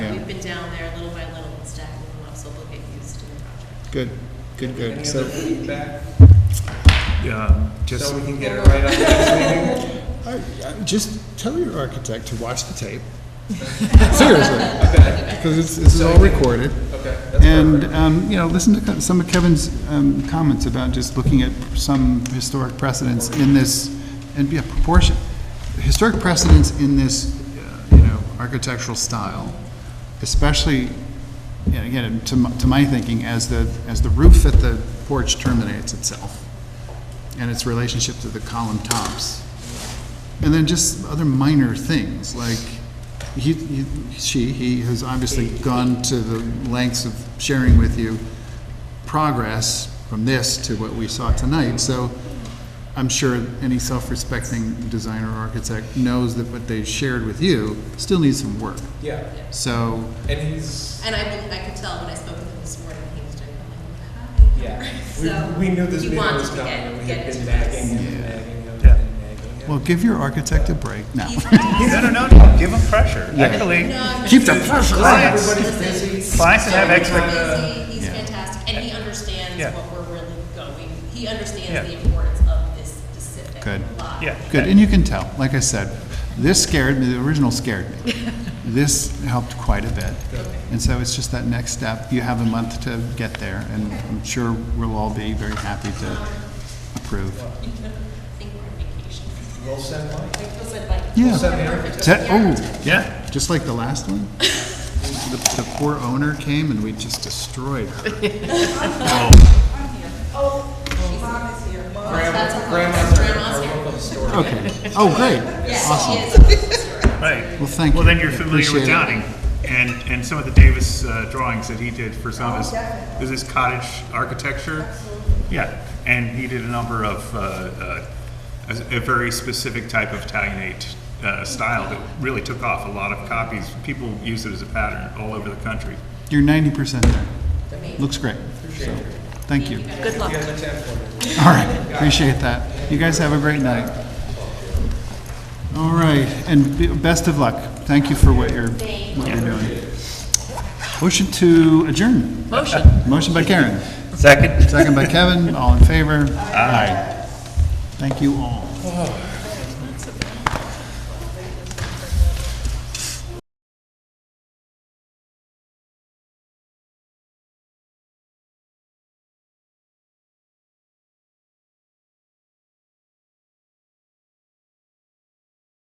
down there little by little and stacking them up so they'll get used to the project. Good, good, Any good. other So, feedback, Yeah, so just, we can get it right up next meeting? I, I, just tell your architect to watch the tape. Seriously, Okay, because it's, this is all recorded. okay, that's And, perfect. um, you know, listen to co- some of Kevin's um, comments about just looking at some historic precedents in this, and be a proportion, historic precedents in this, uh, you know, architectural style, especially, you know, again, to my, to my thinking, as the, as the roof at the porch terminates itself, and its relationship to the column tops. And then just other minor things, like, he, he- she, he has obviously gone to the lengths of sharing with you progress from this to what we saw tonight, so I'm sure any self-respecting designer or architect knows that what they shared with you still needs some work. Yeah, So, and he's, And I mean, I could tell when I spoke with him this morning, he was doing like, hi. yeah, So, we, we knew this you meeting wanted was to coming, get- and we get had it been to nagging us. Yeah. him, nagging him, Yeah. and nagging him. well, give your architect a break now. He's nice. no, no, no, no, give them pressure, actually. No, I'm- Keep the pressure on. Clients. Everybody's Listen, busy. Clients that have so expect- busy, He's Yeah. fantastic, and he Yeah. understands what we're really going, he Yeah. understands the importance of this specific Good. lot. Yeah. Good, and you can tell, like I said, this scared me, the original scared me. This helped quite a bit. And so it's just that next step. You have a month to get there, and I'm sure we'll all be very happy to approve. I think we're on vacation. We'll send Mike. Like, feels like, like, Yeah. send the perfect. Te- Yeah. oh, Yeah, just like the last one? The the poor owner came and we just destroyed her. That's Grandma, okay. grandma's our- Grandma's our here. local historian. Okay, oh, great, Yes, awesome. he is. right. Well, thank Well, you. then you're familiar Appreciate with it. Downing and, and some of the Davis uh, drawings that he did for some of his, is this cottage architecture? Yeah, and he did a number of, uh, uh, a a very specific type of Italianate uh, style that really took off. A lot of copies, people use it as a pattern all over the country. You're ninety percent there. Looks great, so, thank you. Good luck. You guys attend for me. All right, appreciate that. You guys have a great night. All right, and be- best of luck. Thank you for what you're, what you're doing. Motion to adjourn. Motion. Motion by Karen, Second. second by Kevin, all in favor? Aye. Thank you all.